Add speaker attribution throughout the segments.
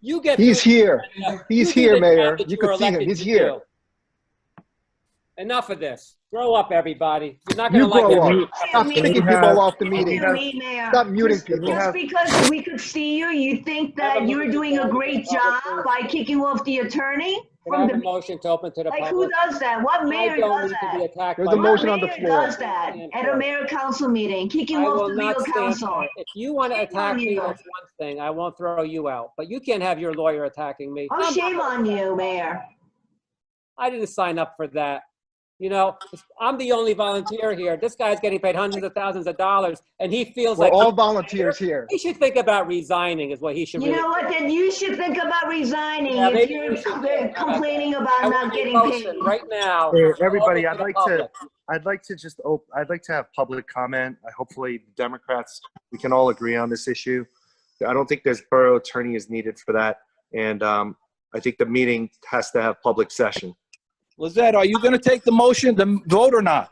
Speaker 1: You get.
Speaker 2: He's
Speaker 1: through-
Speaker 2: here.
Speaker 1: enough-
Speaker 2: He's
Speaker 1: you do
Speaker 2: here,
Speaker 1: the job
Speaker 2: Mayor.
Speaker 1: that
Speaker 2: You
Speaker 1: were
Speaker 2: can see him.
Speaker 1: elected
Speaker 2: He's
Speaker 1: to
Speaker 2: here.
Speaker 1: do. Enough of this. Grow up, everybody. You're not gonna
Speaker 2: You
Speaker 1: like
Speaker 2: grow
Speaker 1: it.
Speaker 2: up. Stop
Speaker 3: We
Speaker 2: kicking
Speaker 3: have-
Speaker 2: people off the
Speaker 3: we
Speaker 2: meeting.
Speaker 3: have-
Speaker 4: Excuse me, Mayor.
Speaker 2: Stop muting
Speaker 3: we
Speaker 2: people.
Speaker 4: Just
Speaker 3: have-
Speaker 4: because we could see you, you think that you were doing a great job by kicking off the attorney
Speaker 1: Can I
Speaker 4: from
Speaker 1: have a
Speaker 4: the,
Speaker 1: motion to open to the
Speaker 4: like, who
Speaker 1: public?
Speaker 4: does that? What
Speaker 1: I
Speaker 4: mayor
Speaker 1: don't
Speaker 4: does
Speaker 1: need to be
Speaker 4: that?
Speaker 1: attacked.
Speaker 2: There's
Speaker 1: by
Speaker 2: a
Speaker 1: my-
Speaker 2: motion on the
Speaker 4: What mayor
Speaker 2: floor.
Speaker 4: does that at a mayor council meeting, kicking
Speaker 1: I
Speaker 4: off
Speaker 1: will
Speaker 4: the
Speaker 1: not
Speaker 4: legal
Speaker 1: stand.
Speaker 4: counsel?
Speaker 1: If you want to attack me,
Speaker 4: you.
Speaker 1: that's one thing. I won't throw you out, but you can't have your lawyer attacking me.
Speaker 4: Oh,
Speaker 1: I'm not-
Speaker 4: shame on you, mayor.
Speaker 1: I didn't sign up for that. You know, I'm the only volunteer here. This guy's getting paid hundreds of thousands of dollars and he feels
Speaker 2: We're
Speaker 1: like
Speaker 2: all volunteers here.
Speaker 1: he should think about resigning is what he should
Speaker 4: You
Speaker 1: really.
Speaker 4: know what, then you should think about resigning
Speaker 1: Yeah,
Speaker 4: if
Speaker 1: maybe you
Speaker 4: you're
Speaker 1: should think
Speaker 4: they're
Speaker 1: about that.
Speaker 4: complaining
Speaker 1: I
Speaker 4: about
Speaker 1: want
Speaker 4: not
Speaker 1: a
Speaker 4: getting paid.
Speaker 1: motion Right now.
Speaker 3: Hey,
Speaker 1: Open
Speaker 3: everybody, I'd
Speaker 1: the
Speaker 3: like to-
Speaker 1: public.
Speaker 3: I'd like to just, op- I'd like to have public comment. I Hopefully Democrats, we can all agree on this issue. I don't think there's borough attorney is needed for that. And um, I think the meeting has to have public session.
Speaker 5: Lizette, are you going to take the motion to vote or not?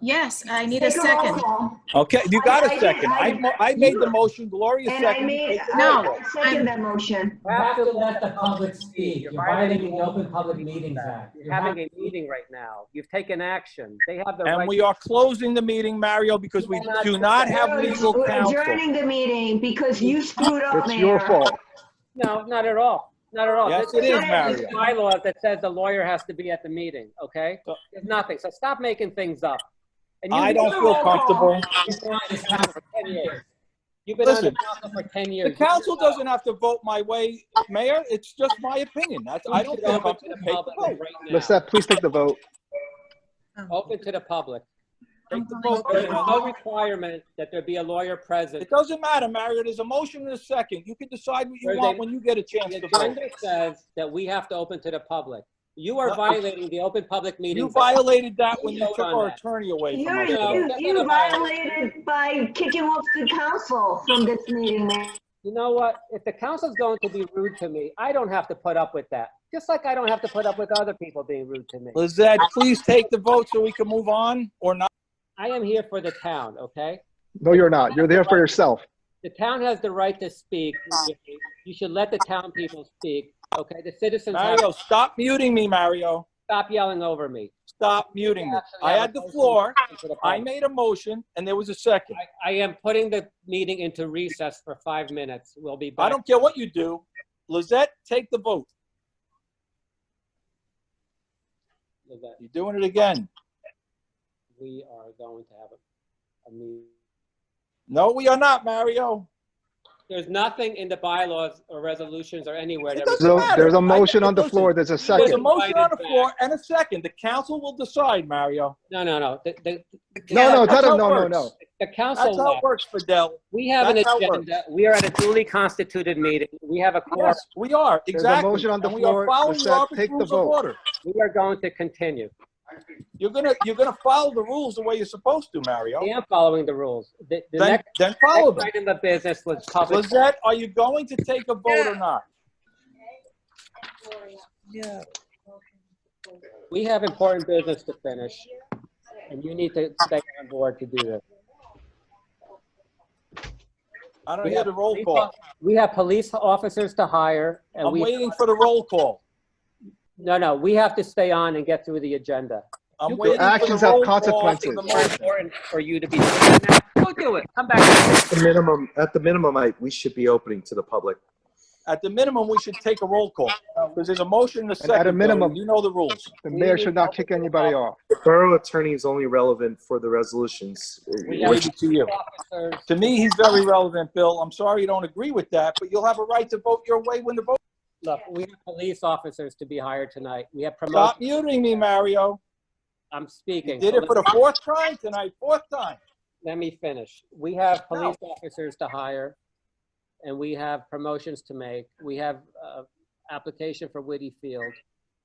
Speaker 6: Yes, I need a
Speaker 4: Take roll
Speaker 6: second.
Speaker 4: call.
Speaker 5: Okay, you got
Speaker 4: I- I
Speaker 5: a
Speaker 4: did-
Speaker 5: second.
Speaker 4: I-
Speaker 5: I, mo- I made the motion, Gloria
Speaker 4: And I
Speaker 5: seconded.
Speaker 4: made,
Speaker 5: Take the roll
Speaker 4: I
Speaker 5: call.
Speaker 4: I second that motion.
Speaker 1: You have to let the public speak. You're violating the Open Public Meetings Act. You're having a meeting right now. You've taken action. They have the right.
Speaker 5: And we are closing the meeting, Mario, because we do not have legal
Speaker 4: We're
Speaker 5: counsel.
Speaker 4: Adjourning the meeting because you screwed up,
Speaker 2: It's
Speaker 4: Mayor.
Speaker 2: your fault.
Speaker 1: No, not at all. Not at all.
Speaker 5: Yes,
Speaker 1: This-
Speaker 5: it is,
Speaker 1: this
Speaker 5: Mario.
Speaker 1: Bylaw that says the lawyer has to be at the meeting, okay? There's nothing. So stop making things up. And you-
Speaker 5: I don't
Speaker 4: do a
Speaker 5: feel
Speaker 4: roll call.
Speaker 5: comfortable.
Speaker 1: You've been on this council for 10 years. You've been on the
Speaker 5: Listen,
Speaker 1: council for 10
Speaker 5: The
Speaker 1: years.
Speaker 5: council doesn't have to vote my way, Mayor. It's just my opinion. That's, I don't feel
Speaker 1: Open to
Speaker 5: comfortable.
Speaker 1: the
Speaker 5: Take the
Speaker 1: public
Speaker 5: vote.
Speaker 1: right now.
Speaker 2: Lisette, please take the vote.
Speaker 1: Open to the public.
Speaker 5: Take the vote.
Speaker 1: There's
Speaker 5: Mayor.
Speaker 1: no requirement that there be a lawyer present.
Speaker 5: It doesn't matter, Mario. There's a motion and a second. You can decide what you want when you get a chance
Speaker 1: The
Speaker 5: to vote.
Speaker 1: agenda says that we have to open to the public. You are
Speaker 5: No.
Speaker 1: violating the Open Public
Speaker 5: You
Speaker 1: Meetings. Act.
Speaker 5: violated that when you took our attorney away from
Speaker 4: You're,
Speaker 5: us.
Speaker 1: No,
Speaker 4: you,
Speaker 1: that's
Speaker 4: you
Speaker 1: not a violation.
Speaker 4: violated by kicking off the council from this meeting, Mayor.
Speaker 1: You know what? If the council's going to be rude to me, I don't have to put up with that. Just like I don't have to put up with other people being rude to me.
Speaker 5: Lizette, please take the vote so we can move on or not.
Speaker 1: I am here for the town, okay?
Speaker 2: No, you're not. You're there for yourself.
Speaker 1: The town has the right to speak. You should let the town people speak, okay? The citizens have,
Speaker 5: Mario, stop muting me, Mario.
Speaker 1: stop yelling over me.
Speaker 5: Stop muting me.
Speaker 1: Actually,
Speaker 5: I
Speaker 1: have
Speaker 5: had
Speaker 1: a
Speaker 5: the
Speaker 1: motion
Speaker 5: floor.
Speaker 1: to the
Speaker 5: I
Speaker 1: public.
Speaker 5: made a motion and there was a second.
Speaker 1: I I am putting the meeting into recess for five minutes. We'll be
Speaker 5: I
Speaker 1: back.
Speaker 5: don't care what you do. Lizette, take the vote. You're doing it again.
Speaker 1: We are going to have a- a meeting.
Speaker 5: No, we are not, Mario.
Speaker 1: There's nothing in the bylaws or resolutions or anywhere.
Speaker 5: It
Speaker 1: that-
Speaker 5: doesn't
Speaker 2: So
Speaker 5: matter.
Speaker 2: there's
Speaker 5: I
Speaker 2: a motion on the
Speaker 5: listen,
Speaker 2: floor. There's a
Speaker 5: There's a
Speaker 2: second.
Speaker 5: motion on the floor and a second. The council will decide, Mario.
Speaker 1: No, no, no. The- the-
Speaker 2: No, no,
Speaker 5: That's
Speaker 2: tell him,
Speaker 5: how it
Speaker 2: no, no,
Speaker 5: works.
Speaker 2: no.
Speaker 1: The council
Speaker 5: That's how it
Speaker 1: left.
Speaker 5: works, Fidel.
Speaker 1: We have an
Speaker 5: that's how it works.
Speaker 1: agenda. We are at a duly constituted meeting. We have a quorum.
Speaker 5: Yes, we are,
Speaker 2: a
Speaker 5: exactly.
Speaker 2: motion on the
Speaker 5: And we are
Speaker 2: floor.
Speaker 5: following the
Speaker 2: Lizette,
Speaker 5: Robert's
Speaker 2: take the
Speaker 5: Rules of
Speaker 2: vote.
Speaker 5: Order.
Speaker 1: We are going to continue.
Speaker 5: You're gonna, you're gonna follow the rules the way you're supposed to, Mario.
Speaker 1: I am following the rules. The the
Speaker 5: Then,
Speaker 1: next
Speaker 5: then follow
Speaker 1: next
Speaker 5: them.
Speaker 1: item of business was public.
Speaker 5: Lizette, are you going to take a vote or not?
Speaker 1: We have important business to finish, and you need to stay on board to do this.
Speaker 5: I don't
Speaker 1: We
Speaker 5: hear
Speaker 1: have
Speaker 5: the roll
Speaker 1: police
Speaker 5: call.
Speaker 1: off- We have police officers to hire, and
Speaker 5: I'm
Speaker 1: we,
Speaker 5: waiting for the roll call.
Speaker 1: no, no, we have to stay on and get through the agenda.
Speaker 5: I'm
Speaker 1: Your
Speaker 5: waiting for
Speaker 2: actions
Speaker 5: the
Speaker 2: have
Speaker 5: roll call.
Speaker 2: consequences.
Speaker 5: for the
Speaker 1: It's
Speaker 5: motion.
Speaker 1: important for you to be, go do it, come back.
Speaker 3: At the minimum, at the minimum, I, we should be opening to the public.
Speaker 5: At the minimum, we should take a roll call, because there's a motion and a
Speaker 2: And at a
Speaker 5: second. Bill.
Speaker 2: minimum-
Speaker 5: You know the rules.
Speaker 2: The mayor should not kick anybody off.
Speaker 3: The borough attorney is only relevant for the resolutions.
Speaker 1: We
Speaker 5: Leave
Speaker 1: have
Speaker 5: it to you.
Speaker 1: officers
Speaker 5: To me, he's very relevant, Bill. I'm sorry you don't agree with that, but you'll have a right to vote your way when the vote.
Speaker 1: Look, we have police officers to be hired tonight. We have
Speaker 5: Stop
Speaker 1: promotions.
Speaker 5: muting me, Mario.
Speaker 1: I'm
Speaker 5: You
Speaker 1: speaking.
Speaker 5: did
Speaker 1: so
Speaker 5: it for the
Speaker 1: let-
Speaker 5: fourth time tonight, fourth time.
Speaker 1: Let me finish. We have police officers to hire, and we have promotions to make. We have uh, application for Whitty Field.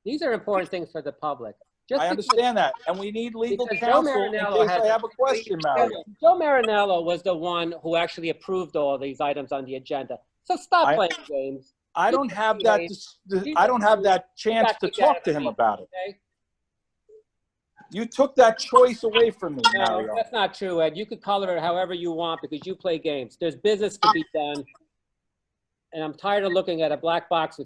Speaker 1: These are important things for the public. Just
Speaker 5: I
Speaker 1: because-
Speaker 5: understand that, and we need legal
Speaker 1: Because Joe
Speaker 5: counsel in
Speaker 1: Marinello
Speaker 5: case
Speaker 1: has
Speaker 5: I have a question, Mario.
Speaker 1: Joe Marinello was the one who actually approved all these items on the agenda. So stop
Speaker 5: I-
Speaker 1: playing games,
Speaker 5: I don't have that. dis- I don't have that chance to talk to him about it.
Speaker 1: okay?
Speaker 5: You took that choice away from me,
Speaker 1: No,
Speaker 5: Mario.
Speaker 1: that's not true, Ed. You could color it however you want because you play games. There's business to be done. and I'm tired of looking at a black box with